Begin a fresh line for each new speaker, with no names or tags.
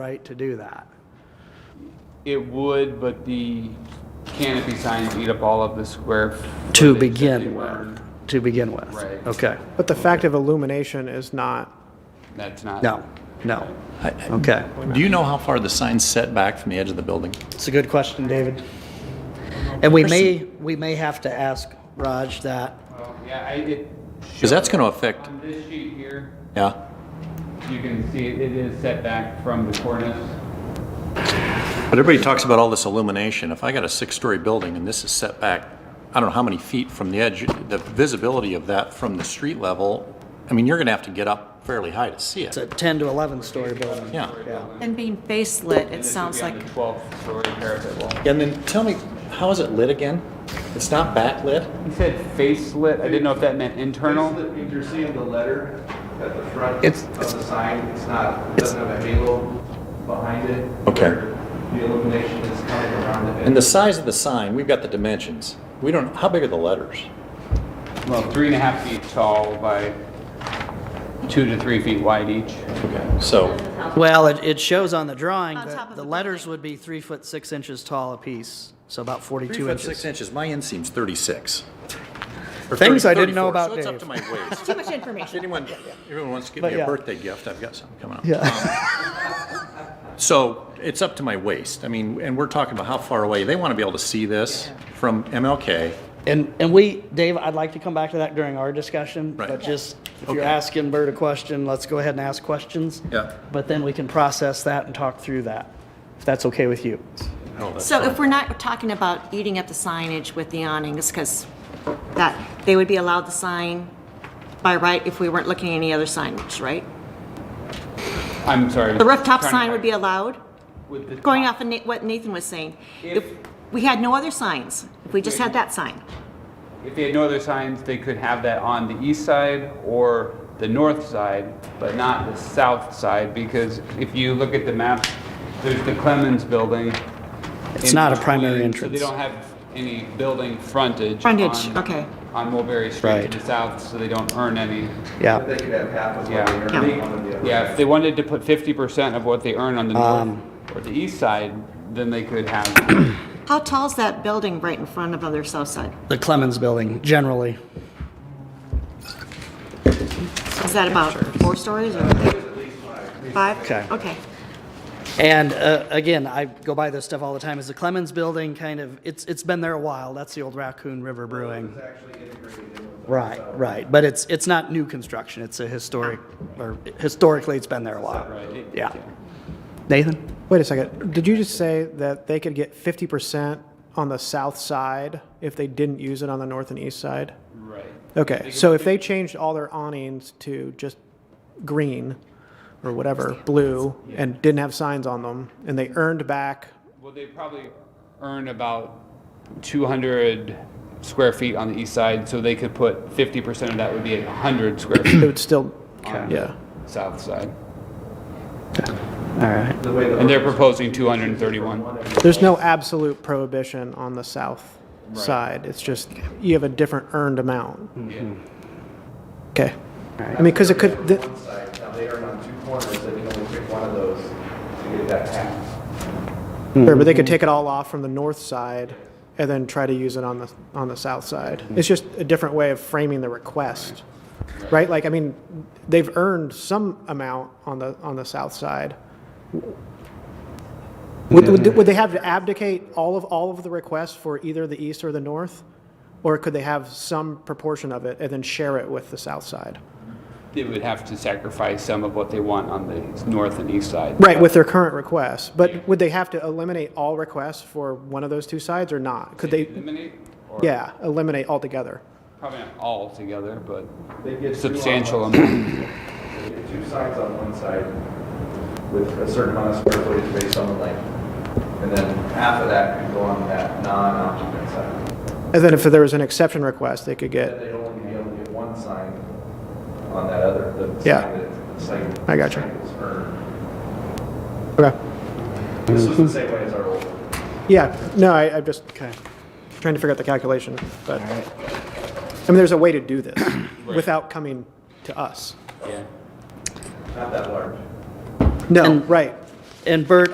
right to do that.
It would, but the canopy signs eat up all of the square.
To
footage that they
begin
want.
with, to begin with.
Right.
Okay.
But the fact of illumination is not,
That's not.
No, no. Okay.
Do you know how far the sign's set back from the edge of the building?
It's a good question, David. And we may,
Person-
we may have to ask Raj that.
Well, Yeah, I, it.
Because that's going to affect,
On this sheet here,
yeah.
you can see it is set back from the cornice.
But everybody talks about all this illumination. If I got a six-story building and this is set back, I don't know how many feet from the edge, the visibility of that from the street level, I mean, you're going to have to get up fairly high to see
It's a
it.
10 to 11 story building.
Yeah.
And being baselit, it
This would
sounds
be on
like,
the Twelfth story parapet wall.
And then tell me, how is it lit again? It's not backlit?
He said facelit. I didn't know if that meant internal.
If you're seeing the letter at the front
It's-
of
it's-
the sign, it's not, doesn't have a halo behind it.
Okay.
where The illumination is coming around it.
And the size of the sign, we've got the dimensions. We don't, how big are the letters?
Well, three and a half feet tall by two to three feet wide each.
Okay, so,
Well, it, it shows on the drawing
On top
that
of
the
the
letters
building.
would be three foot six inches tall apiece, so about
three
42
foot six
inches.
inches, my inseam's 36. Or
Things
30
I didn't know
34,
about
So it's up
Dave.
to my waist.
too much information.
Anyone, everyone wants to give
But
me
yeah.
a birthday gift, I've got something coming up.
Yeah,
So it's up to my waist. I mean, and we're talking about how far away. They want to be able to see this from MLK.
and, and we, Dave, I'd like to come back to that during our discussion,
Right.
but just, if you're
Okay.
asking Bert a question, let's go ahead and ask questions.
Yeah.
But then we can process that and talk through that, if that's okay with you.
So if we're not talking about eating up the signage with the awnings, because that, they would be allowed the sign by right if we weren't looking at any other signage, right?
I'm sorry.
The
Trying
rooftop
to
sign
find-
would be allowed,
with the
going
top-
off of Na- what Nathan was saying. If
If-
we had no other signs, if we just had that sign.
If they had no other signs, they could have that on the east side or the north side, but not the south side, because if you look at the map, there's the Clemens Building.
It's
in
not a
between,
primary
So
entrance.
they don't have any building frontage.
Frontage,
on-
okay.
On Mulberry Street
Right.
to the south, so they don't earn any.
But
Yeah,
They could have half of
Yeah.
what they earn
Yeah.
on one of the other.
Yeah, if they wanted to put 50% of what they earn on the north
Um,
or the east side, then they could have
How tall's that building right in front of their south side?
the Clemens Building, generally.
Is that about four stories or? Five?
Okay.
Okay.
And uh, again, I go by this stuff all the time. Is the Clemens Building kind of? It's it's been there a while. That's the old Raccoon River Brewing. Right, right. But it's it's not new construction. It's a historic, or historically, it's been there a while. Yeah. Nathan.
wait a second, did you just say that they could get 50% on the south side if they didn't use it on the north and east side? Okay, so if they changed all their awnings to just green or whatever, blue, and didn't have signs on them, and they earned back,
Well, they probably earn about 200 square feet on the east side, so they could put 50% of that would be 100 square
it
feet
would still,
Okay.
yeah.
south side.
All right.
The way the
And they're proposing 231.
There's no absolute prohibition on the south side, it's just, you have a different earned amount. Okay, I mean, because it could, th-
one side, now they earn on two corners, they can only pick one of those to get that half.
Sure, but they could take it all off from the north side and then try to use it on the, on the south side. It's just a different way of framing the request, right? Like, I mean, they've earned some amount on the, on the south side. Would, would, would they have to abdicate all of, all of the requests for either the east or the north? Or could they have some proportion of it and then share it with the south side?
They would have to sacrifice some of what they want on the north and east side.
Right, with their current requests, but would they have to eliminate all requests for one of those two sides or not? Could they,
Eliminate? or-
yeah, eliminate altogether?
Probably not all together, but
They get two on
substantial
one
amount.
side. They get two signs on one side with a certain amount of square footage based on the length. And then half of that could go on that non-occupant side.
And then if there was an exception request, they could
Then
get,
they'd only be able to get one sign on that other, the sign
Yeah.
that, the sign.
I gotcha.
sign that was earned.
okay.
This was the same way as our old. one.
Yeah, no, I, I'm just trying to figure out the calculation, but, I mean, there's a way to do this without coming to us.
Yeah.
Not that large.
No, right.
And Bert,